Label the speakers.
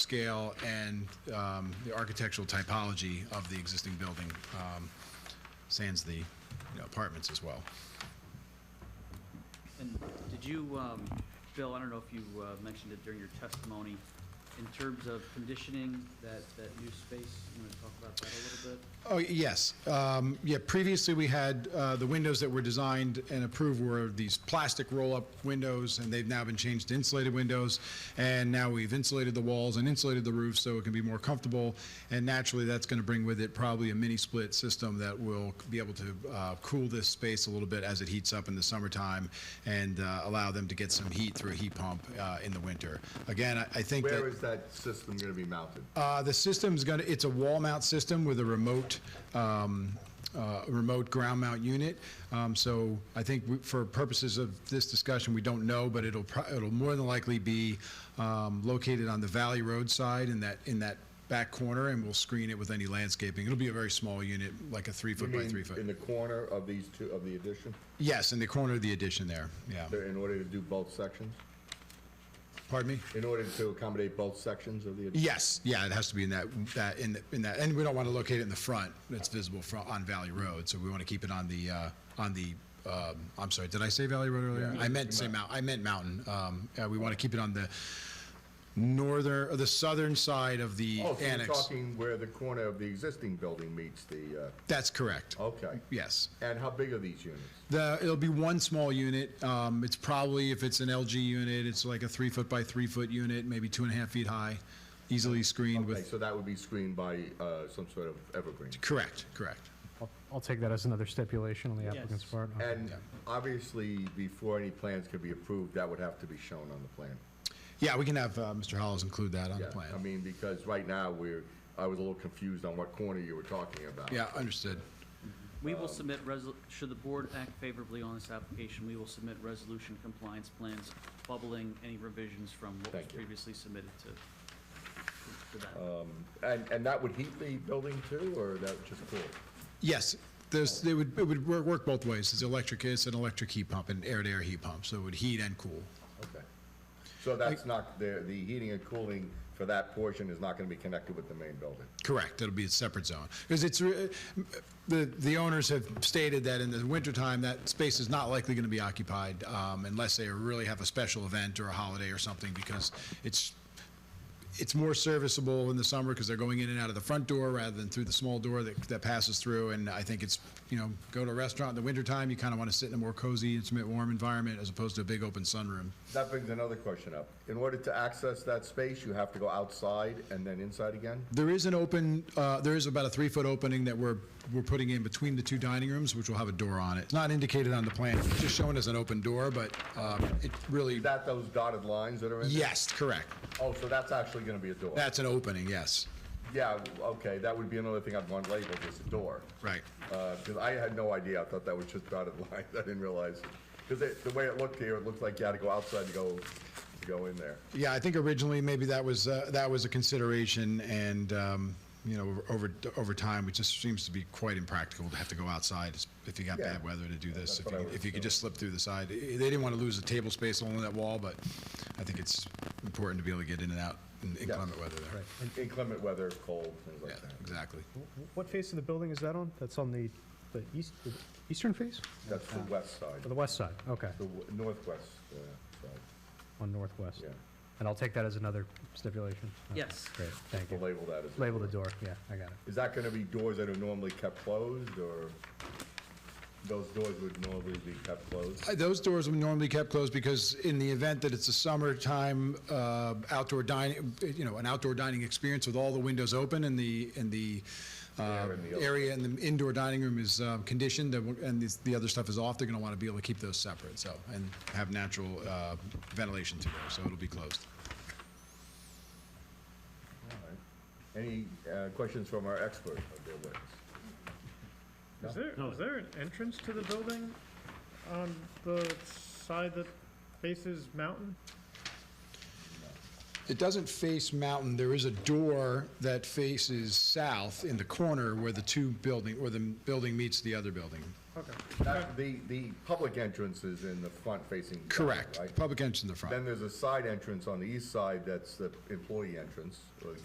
Speaker 1: scale and um, the architectural typology of the existing building, um, sans the you know, apartments as well.
Speaker 2: And did you, um, Bill, I don't know if you uh, mentioned it during your testimony, in terms of conditioning that, that new space, you want to talk about that a little bit?
Speaker 1: Oh, yes. Um, Yeah, previously, we had, uh, the windows that were designed and approved were these plastic roll-up windows, and they've now been changed to insulated windows. And now we've insulated the walls and insulated the roof so it can be more comfortable. And naturally, that's going to bring with it probably a mini-split system that will be able to uh, cool this space a little bit as it heats up in the summertime and uh, allow them to get some heat through a heat pump uh, in the winter. Again, I I think that...
Speaker 3: Where is that system going to be mounted?
Speaker 1: Uh, The system's going to, it's a wall mount system with a remote, um, uh, remote ground mount unit. Um, So I think we- for purposes of this discussion, we don't know, but it'll, pro- it'll more than likely be um, located on the Valley Road side in that, in that back corner, and we'll screen it with any landscaping. It'll be a very small unit, like a three
Speaker 3: You
Speaker 1: foot by
Speaker 3: mean
Speaker 1: three
Speaker 3: In
Speaker 1: foot.
Speaker 3: the corner of these two, of the addition,
Speaker 1: Yes, in the corner of the addition there, yeah.
Speaker 3: There- in order to do both sections?
Speaker 1: Pardon me?
Speaker 3: In order to accommodate both sections of the addition?
Speaker 1: Yes, yeah, it has to be in that, that, in, the- in that, and we don't want to locate it in the front, that's visible from, on Valley Road, so we want to keep it on the, uh, on the, um, I'm sorry, did I say Valley Road earlier? I meant to say Mount, I meant Mountain, um, uh, we want to keep it on the northern, or the southern side of the
Speaker 3: Oh, so you're
Speaker 1: annex.
Speaker 3: talking where the corner of the existing building meets the, uh,
Speaker 1: That's correct,
Speaker 3: okay.
Speaker 1: yes.
Speaker 3: And how big are these units?
Speaker 1: The, it'll be one small unit. Um, it's probably, if it's an LG unit, it's like a three foot by three foot unit, maybe two and a half feet high, easily screened
Speaker 3: Okay,
Speaker 1: with,
Speaker 3: so that would be screened by uh, some sort of evergreen.
Speaker 1: correct, correct.
Speaker 4: I'll- I'll take that as another stipulation on the applicant's
Speaker 2: Yes.
Speaker 4: part. Okay.
Speaker 3: And obviously, before any plans could be approved, that would have to be shown on the plan.
Speaker 1: Yeah, we can have uh, Mr. Hollis include that on the
Speaker 3: Yeah,
Speaker 1: plan.
Speaker 3: I mean, because right now, we're, I was a little confused on what corner you were talking about.
Speaker 1: Yeah, understood.
Speaker 2: We
Speaker 3: Um,
Speaker 2: will submit, resol- should the board act favorably on this application, we will submit resolution compliance plans bubbling any revisions from what was
Speaker 3: Thank you. Uh,
Speaker 2: previously submitted to, to that.
Speaker 3: And, and that would heat the building too, or that would just cool?
Speaker 1: Yes, there's, it would, it would wor- work both ways. It's electric, it's an electric heat pump, an air-to-air heat pump, so it would heat and cool.
Speaker 3: Okay. So that's not, the, the heating and cooling for that portion is not gonna be connected with the main building?
Speaker 1: Correct, it'll be a separate zone. Because it's, re- the, the owners have stated that in the wintertime, that space is not likely going to be occupied um, unless they really have a special event or a holiday or something, because it's, it's more serviceable in the summer because they're going in and out of the front door rather than through the small door that, that passes through. And I think it's, you know, go to a restaurant in the wintertime, you kind of want to sit in a more cozy, intimate, warm environment as opposed to a big open sunroom.
Speaker 3: That brings another question up. In order to access that space, you have to go outside and then inside again?
Speaker 1: There is an open, uh, there is about a three-foot opening that we're, we're putting in between the two dining rooms, which will have a door on it. It's not indicated on the plan, it's just showing as an open door, but um, it really,
Speaker 3: Is that those dotted lines that are in? there?
Speaker 1: yes, correct.
Speaker 3: Oh, so that's actually gonna be a door?
Speaker 1: That's an opening, yes,
Speaker 3: Yeah, okay, that would be another thing I'd want labeled as a door.
Speaker 1: right.
Speaker 3: Uh, cause I had no idea, I thought that was just dotted lines, I didn't realize. Cause it, the way it looked here, it looked like you had to go outside to go, to go in there.
Speaker 1: Yeah, I think originally maybe that was, uh, that was a consideration, and, um, you know, over, over time, it just seems to be quite impractical to have to go outside if you got
Speaker 3: Yeah.
Speaker 1: bad weather to do this,
Speaker 3: That's
Speaker 1: if
Speaker 3: what I
Speaker 1: you,
Speaker 3: would
Speaker 1: if you could
Speaker 3: assume.
Speaker 1: just slip through the side. Eh, They didn't want to lose the table space along that wall, but I think it's important to be able to get in and out in inclement weather there.
Speaker 3: Inclement weather, cold, things like that.
Speaker 1: exactly.
Speaker 4: What face of the building is that on? That's on the, the east, the eastern face?
Speaker 3: That's the west side,
Speaker 4: Or the west side? Okay,
Speaker 3: the w- northwest uh, side,
Speaker 4: on northwest.
Speaker 3: yeah.
Speaker 4: And I'll take that as another stipulation. Okay,
Speaker 2: Yes.
Speaker 4: Great, thank
Speaker 3: We'll
Speaker 4: you.
Speaker 3: label that as.
Speaker 4: Label the door, yeah, I got it.
Speaker 3: Is that gonna be doors that are normally kept closed, or those doors would normally be kept closed?
Speaker 1: Those doors would normally kept closed because in the event that it's a summertime uh, outdoor dining, you know, an outdoor dining experience with all the windows open and the, and the uh,
Speaker 3: Air in the open.
Speaker 1: area and the indoor dining room is uh, conditioned and we're- and this- the other stuff is off, they're going to want to be able to keep those separate, so, and have natural uh, ventilation to there, so it'll be closed.
Speaker 3: Any uh, questions from our expert of their witness?
Speaker 5: Is there, is there an entrance to the building on the side that faces mountain?
Speaker 1: It doesn't face mountain. There is a door that faces south in the corner where the two building, where the building meets the other building.
Speaker 5: Okay.
Speaker 3: That- The, the public entrance is in the front facing. back,
Speaker 1: Correct.
Speaker 3: right?
Speaker 1: Public entrance in the front.
Speaker 3: Then there's a side entrance on the east side that's the employee entrance, or the